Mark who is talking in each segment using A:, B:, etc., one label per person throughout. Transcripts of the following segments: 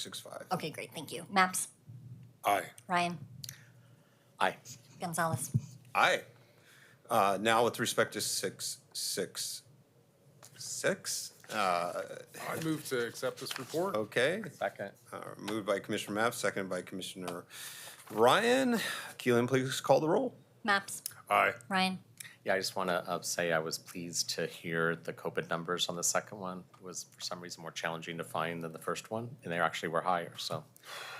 A: 665.
B: Okay, great, thank you. Maps,
A: Aye.
B: Ryan,
C: Aye.
B: Gonzalez.
A: Aye. Uh, Now, with respect to 666,
D: I move to accept this report.
A: uh, okay,
C: Second.
A: Uh, moved by Commissioner Mapp, seconded by Commissioner Ryan. Keelan, please call the roll.
B: Maps,
D: Aye.
B: Ryan,
C: Yeah, I just want to say I was pleased to hear the COVID numbers on the second one. It was for some reason more challenging to find than the first one, and they actually were higher, so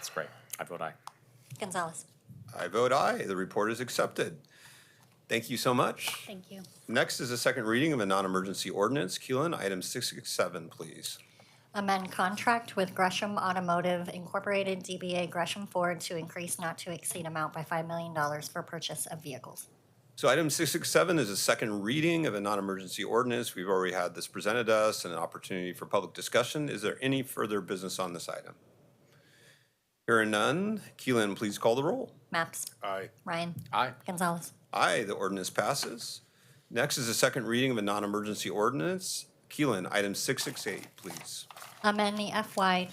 C: it's great. I vote aye.
B: Gonzalez.
A: I vote aye. The report is accepted. Thank you so much.
B: Thank you.
A: Next is a second reading of a non-emergency ordinance. Keelan, item 667, please.
B: Amend contract with Gresham Automotive Incorporated DBA Gresham Ford to increase not to exceed amount by $5 million for purchase of vehicles.
A: So item six six seven is a second reading of a non-emergency ordinance. We've already had this presented to us and an opportunity for public discussion. Is there any further business on this item? Hearing none, Keelan, please call the roll.
B: Maps,
D: Aye.
B: Ryan,
C: Aye.
B: Gonzalez.
A: Aye, the ordinance passes. Next is a second reading of a non-emergency ordinance. Keelan, item six six eight, please.
B: Amend the FY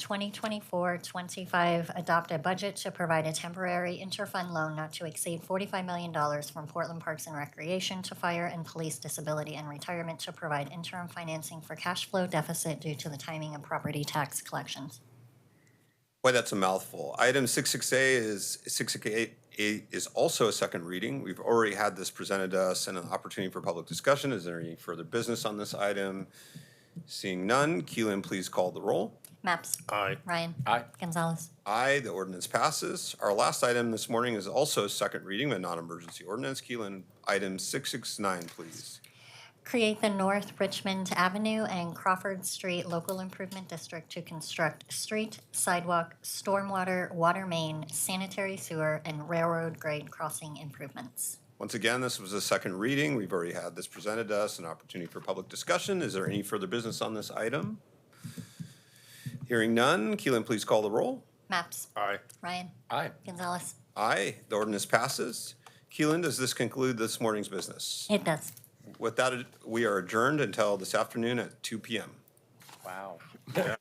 B: 2024-25 adopted budget to provide a temporary interfund loan not to exceed $45 million from Portland Parks and Recreation to Fire and Police Disability and Retirement to provide interim financing for cash flow deficit due to the timing of property tax collections.
A: Boy, that's a mouthful. Item six six A is six six eight is also a second reading. We've already had this presented to us and an opportunity for public discussion. Is there any further business on this item? Seeing none, Keelan, please call the roll.
B: Maps.
D: Aye.
B: Ryan.
C: Aye.
B: Gonzalez.
A: Aye, the ordinance passes. Our last item this morning is also a second reading of a non-emergency ordinance. Keelan, item six six nine, please.
B: Create the North Richmond Avenue and Crawford Street Local Improvement District to construct street, sidewalk, stormwater, water main, sanitary sewer, and railroad grade crossing improvements.
A: Once again, this was a second reading. We've already had this presented to us, an opportunity for public discussion. Is there any further business on this item? Hearing none, Keelan, please call the roll.
B: Maps.
D: Aye.
B: Ryan.
C: Aye.
B: Gonzalez.
A: Aye, the ordinance passes. Keelan, does this conclude this morning's business?
B: It does.
A: With that, we are adjourned until this afternoon at 2 PM.
C: Wow.